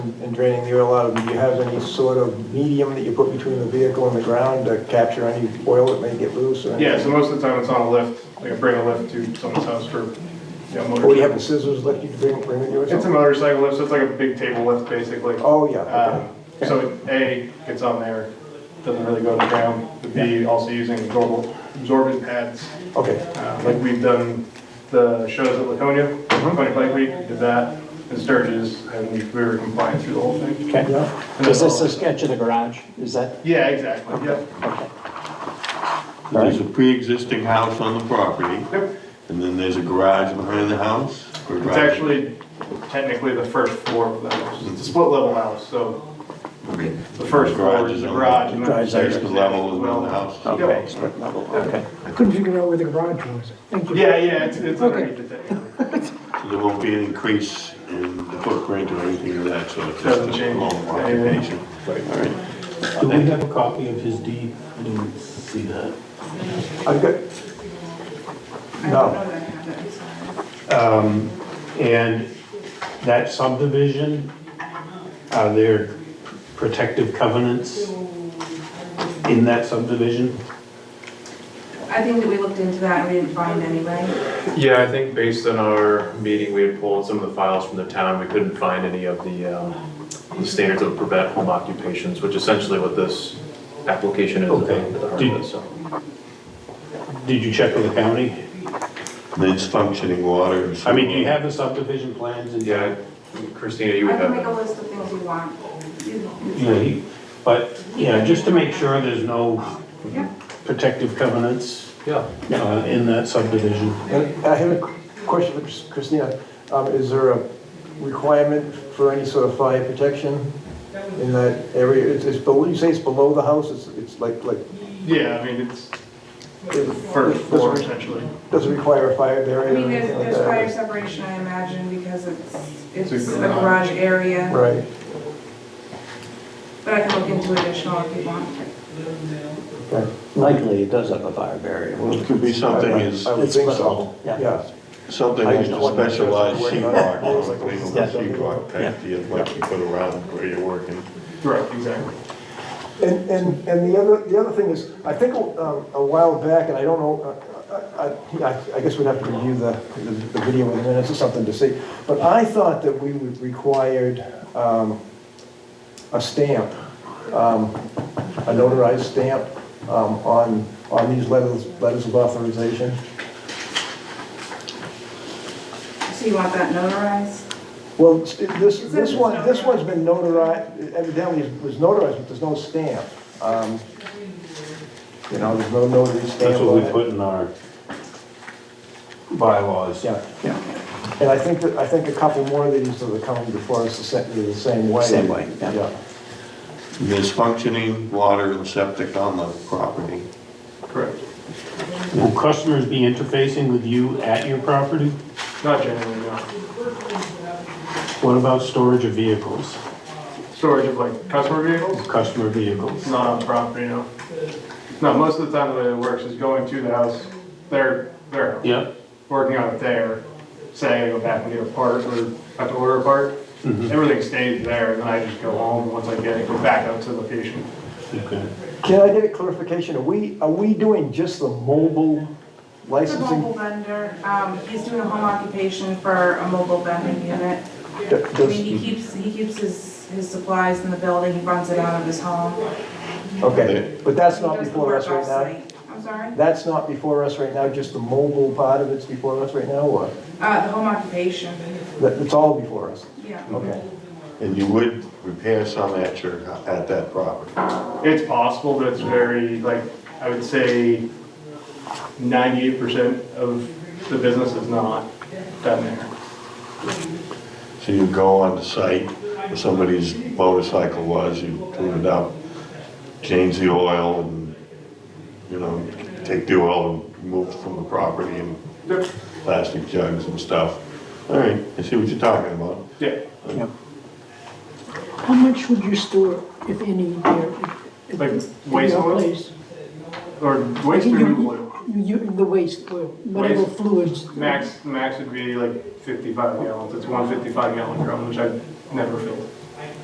and and draining the oil out of them, do you have any sort of medium that you put between the vehicle and the ground to capture any oil that may get loose? or anything? Yeah, so most of the time it's on a lift, like I bring a lift to someone's house for, you know, Or do you have motor. the scissors that you bring, bring with you or It's a something? motorcycle lift, so it's like a big table lift, basically. Oh, yeah, okay. Um, So it, A, gets on there, doesn't really go to the ground, but B, also using absorbent, absorbent pads, Okay, uh, like we've done the shows at Laconia, Laconia Bike Week, did that, and Sturgis, and we we were compliant through the whole thing. Okay. yeah, Is this a sketch of the garage? Is that? Yeah, exactly, yep. There's a pre-existing house on the property, Yep. and then there's a garage behind the house? or It's garage- actually technically the first floor of the house. It's a split level house, so the first floor is the on garage. and then Garage is upstairs Basement is level is where well. the house. Okay, Yep. split level, okay. I couldn't figure out where the garage was. Thank you. Yeah, yeah, it's, it's underneath the thing. So There won't be an increase in the footprint or anything of that sort. It's Doesn't just a change normal anything. occupation. All right. Do we have a copy of his deed? I didn't see that. I've got, no, And that subdivision, are there protective covenants in that subdivision? I think that we looked into that and we didn't find any, right? Yeah, I think based on our meeting, we had pulled some of the files from the town, we couldn't find any of the, um, the standards of prevent home occupations, which essentially what this application is Okay. about, the heart of it, so. Did you check with the county? And it's functioning water and I mean, do you sewer. have the subdivision plans and? Yeah, Christina, you I would can make a have, list of things you want. Yeah, he- But, yeah, just to make sure there's no Yeah. protective covenants yeah. uh, in that subdivision. and I have a question for Chris- Christina, um, is there a requirement for any sort of fire protection in that area? It's, it's, below- you say it's below the house, it's, it's like, like, Yeah, I mean, it's the first floor does it, essentially. does it require a fire I barrier or mean, there's, anything like there's fire that? separation, I imagine, because it's, it's It's a a garage. garage area, Right, but I can look into additional if you want. okay. Likely, it does have a fire barrier. Well, it could be something as, I would It's think split so. level, Yeah, yeah. something I as just a wondered if there's specialized something sheet going on. rock, like legal Yeah. sheet rock type deal, like you put around where you're working. Right, exactly. And, and, and the other, the other thing is, I think um, a while back, and I don't know, I, I- I, I guess we'd have to review the, the video in the minutes or something to see, but I thought that we would required, um, a stamp, um, a notarized stamp, um, on, on these letters, letters of authorization. So you want that notarized? Well, s- this, this one, this one's been notarized, evidently it was notarized, but there's no stamp. Um, You know, there's no notary stamp on it. That's what we put in our bylaws. Yeah, yeah. And I think, that I think a couple more of these that are coming before us the sa- are the same way. Same way, yeah. There's functioning water and septic on the property. Correct. Will customers be interfacing with you at your property? Not generally, no. What about storage of vehicles, Storage of like customer vehicles, customer vehicles? not on the property, no. No, most of the time the way it works is going to the house, their, their house. Yep, working on it there, say I go back and get a part or have to order a part, everything stays there, and then I just go home, once I get it, go back out to the location. okay. Can I get a clarification? Are we, are we doing just the mobile It's a licensing? mobile vendor, um, he's doing a home occupation for a mobile vending unit. D- I mean, does- he keeps, he keeps his, his supplies in the building, he runs it out of his home. Okay, but that's He not does the before work us right now? off-site. I'm sorry? That's not before us right now, just the mobile part of it's before us right now, or? Uh, the home occupation, That- It's all before us, yeah. okay. And you would repair some at your, at that property. It's possible, but it's very, like, I would say ninety-eight percent of the business is not done there. So you go on the site, where somebody's motorcycle was, you clean it up, change the oil and, you know, take the oil and remove it from the property and Yep. plastic jugs and stuff. All right, I see what you're talking about. Yeah, How much would you store, if any, there? at- Like at waste your oil? place? or waste You- removal oil. You, the waste oil, whatever Waste. fluids. Max, max would be like fifty-five gallons, it's one fifty-five gallon drum, which I've never filled.